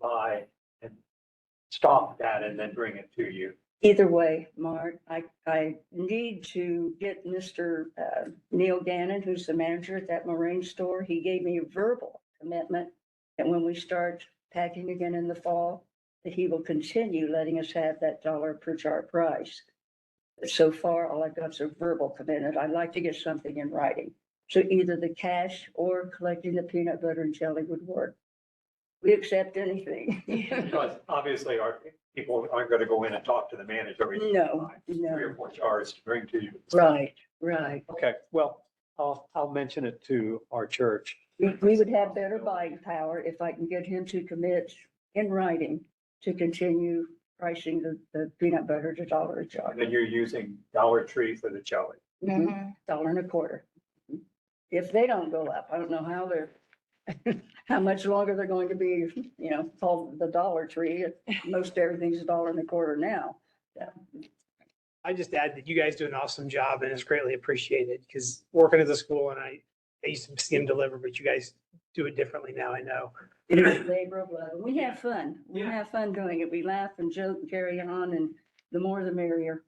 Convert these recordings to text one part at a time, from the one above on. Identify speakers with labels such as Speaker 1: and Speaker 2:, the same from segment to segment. Speaker 1: by and stop that and then bring it to you.
Speaker 2: Either way, Mark, I, I need to get Mr. uh, Neil Gannon, who's the manager at that marine store. He gave me a verbal commitment that when we start packing again in the fall, that he will continue letting us have that dollar per jar price. So far, all I've got is a verbal commitment. I'd like to get something in writing. So either the cash or collecting the peanut butter and jelly would work. We accept anything.
Speaker 1: Because obviously our people aren't going to go in and talk to the manager. every
Speaker 2: No,
Speaker 1: Three
Speaker 2: no.
Speaker 1: or four jars to bring to you.
Speaker 2: Right, right.
Speaker 1: Okay, well, I'll, I'll mention it to our church.
Speaker 2: We, we would have better buying power if I can get him to commit in writing to continue pricing the, the peanut butter to dollar a jar,
Speaker 1: And then you're using Dollar Tree for the jelly.
Speaker 2: Mhm. dollar and a quarter. If they don't go up, I don't know how they're, how much longer they're going to be, you know, called the Dollar Tree. Most everything's a dollar and a quarter now.
Speaker 3: I just add that you guys do an awesome job and it's greatly appreciated because working at the school and I, I used to see them deliver, but you guys do it differently now, I know.
Speaker 2: It is a labor of love. We have fun. We
Speaker 3: Yeah.
Speaker 2: have fun doing it. We laugh and joke and carry on and the more the merrier.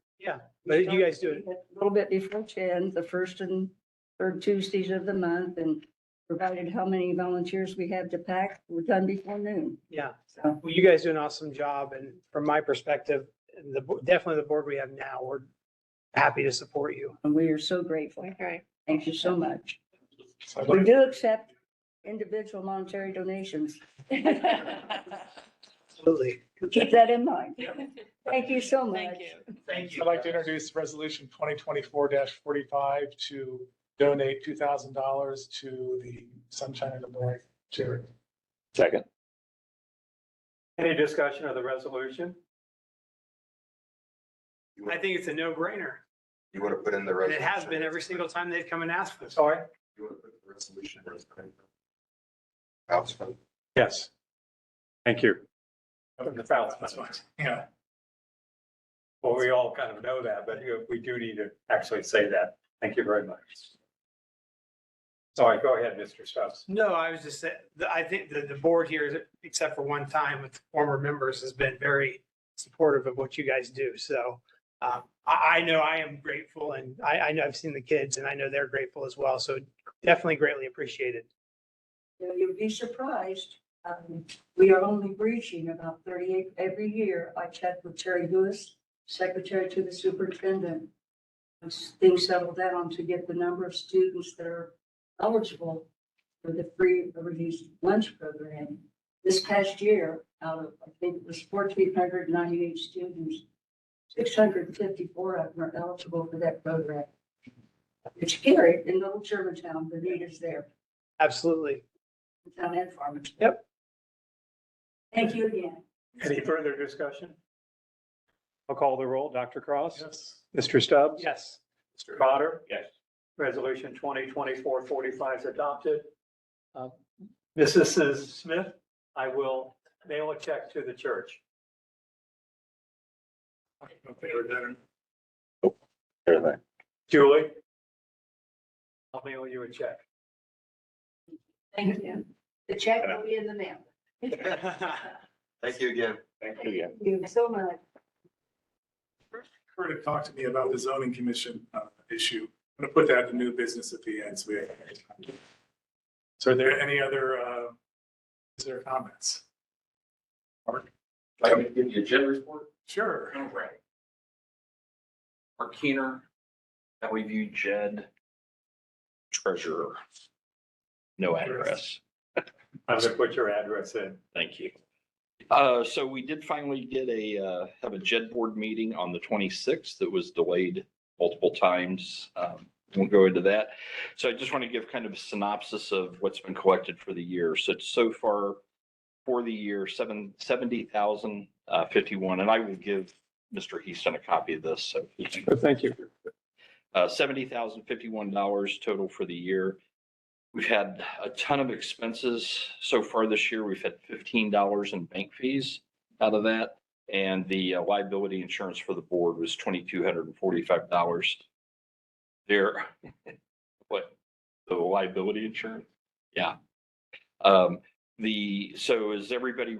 Speaker 3: But you guys do it,
Speaker 2: A little bit before ten, the first and third Tuesdays of the month, and provided how many volunteers we have to pack, we're done before noon.
Speaker 3: yeah.
Speaker 2: So,
Speaker 3: Well, you guys do an awesome job and from my perspective, and the, bo- definitely the board we have now, we're happy to support you.
Speaker 2: and we are so grateful.
Speaker 4: Okay.
Speaker 2: Thank you so much.
Speaker 1: So
Speaker 2: We do accept individual monetary donations.
Speaker 3: Absolutely.
Speaker 2: Keep that in mind. Thank you so much.
Speaker 4: Thank you.
Speaker 5: Thank
Speaker 6: I'd like to introduce resolution twenty twenty-four forty-five to donate two thousand dollars to the Sunshine and the Boy charity.
Speaker 7: Second.
Speaker 1: Any discussion of the resolution?
Speaker 3: I think it's a no brainer.
Speaker 5: You want to put in the
Speaker 3: And
Speaker 5: resolution.
Speaker 3: it has been every single time they've come and asked for this.
Speaker 1: Sorry?
Speaker 5: You want to put the resolution. where it's coming from. House vote.
Speaker 1: Yes. Thank you. The Falcons.
Speaker 6: That's fine. Yeah,
Speaker 1: Well, we all kind of know that, but you know, we do need to actually say that. Thank you very much. Sorry, go ahead, Mr. Stubbs.
Speaker 3: No, I was just, sa- the- I think the, the board here, except for one time with former members, has been very supportive of what you guys do. So um, I, I know I am grateful and I, I know I've seen the kids and I know they're grateful as well. So definitely greatly appreciated.
Speaker 2: You know, you'd be surprised. Um, we are only reaching about thirty-eight every year. I check with Terry Lewis, secretary to the superintendent. Once Things settle down to get the number of students that are eligible for the free or reduced lunch program. This past year, out of, I think it was fourteen hundred ninety-eight students, six hundred and fifty-four of them are eligible for that program. It's scary in Little Germantown, the need is there.
Speaker 3: Absolutely.
Speaker 2: Town and Farmington.
Speaker 3: Yep.
Speaker 2: Thank you again.
Speaker 1: Any further discussion? I'll call the roll. Dr. Cross?
Speaker 6: yes.
Speaker 1: Mr. Stubbs?
Speaker 3: Yes.
Speaker 1: Mr. Potter?
Speaker 7: Yes.
Speaker 1: Resolution 2024-45 is adopted. Uh, Mrs. Smith, I will mail a check to the church.
Speaker 6: Okay, we're done.
Speaker 1: Oh,
Speaker 7: Everything.
Speaker 1: Julie? I'll mail you a check.
Speaker 2: Thank you. The check will be in the mail.
Speaker 5: Thank you again.
Speaker 7: Thank you again.
Speaker 2: Thank you so much.
Speaker 6: Kurt had talked to me about the zoning commission uh, issue. I'm gonna put that to new business at the end, so we have. So are there any other, uh, is there comments?
Speaker 8: Like, give you a gym report,
Speaker 6: Sure.
Speaker 8: All right. Mark Keener, that we view Jed treasurer. No address.
Speaker 1: I'm going to put your address in.
Speaker 8: Thank you. Uh, so we did finally get a, uh, have a JED board meeting on the twenty-sixth that was delayed multiple times. Um, won't go into that. So I just want to give kind of a synopsis of what's been collected for the year. So it's so far for the year, seven, seventy thousand, uh, fifty-one, and I will give Mr. Heaston a copy of this, so. he can-
Speaker 1: Thank you.
Speaker 8: uh, seventy thousand fifty-one dollars total for the year. We've had a ton of expenses so far this year. We've had fifteen dollars in bank fees out of that. And the uh, liability insurance for the board was twenty-two hundred and forty-five dollars. There, what, the liability insurance? Yeah. Um, the, so is everybody